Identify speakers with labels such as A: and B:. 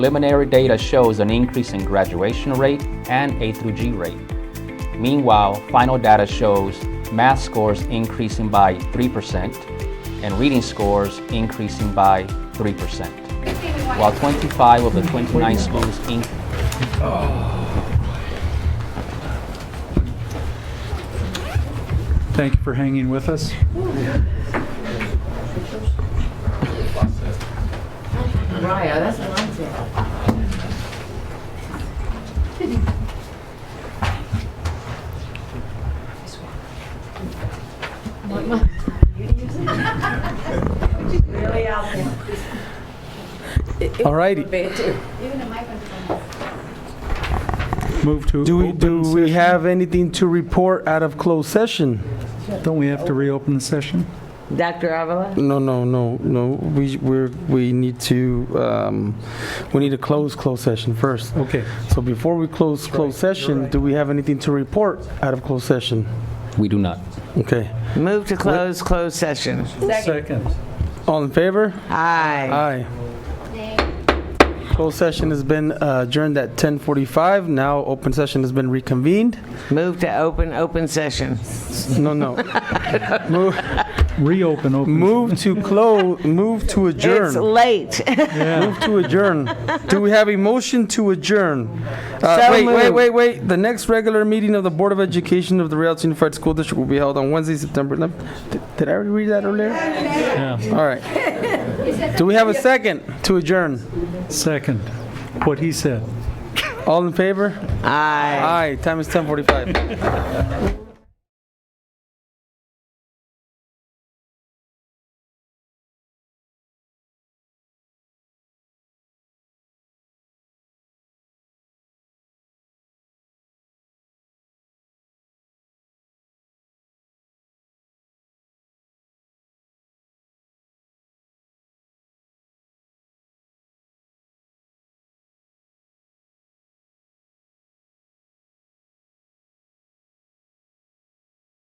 A: Preliminary data shows an increase in graduation rate and A through G rate. Meanwhile, final data shows math scores increasing by 3% and reading scores increasing by 3%, while 25 of the 29 schools increased.
B: Thank you for hanging with us.
C: Raya, that's what I'm saying.
B: All righty. Move to
D: Do we, do
B: open
D: we
B: session.
D: have anything to report out of closed session?
B: Don't we have to reopen the session?
C: Dr. Avila?
D: No, no, no, no. We, we're, we need to, um, we need to close closed session first.
B: Okay.
D: So before we close closed session, do we have anything to report out of closed session?
A: We do not.
D: Okay.
C: Move to close, closed session.
B: Second.
D: All in favor?
C: Aye.
D: Aye. Closed session has been uh, adjourned at 10:45. Now open session has been reconvened.
C: Move to open, open session.
D: No, no. Move,
B: Reopen, open.
D: move to close, move to adjourn.
C: It's late.
B: Yeah.
D: Move to adjourn. Do we have a motion to adjourn? Uh,
C: So
D: wait, wait,
C: moved.
D: wait, wait. The next regular meeting of the Board of Education of the Rialto Unified School District will be held on Wednesday, September 11th. Did, did I already read that earlier?
B: Yeah.
D: All right. Do we have a second to adjourn?
B: Second. What he said.
D: All in favor? Aye.
C: Aye.
D: Time is 10:45.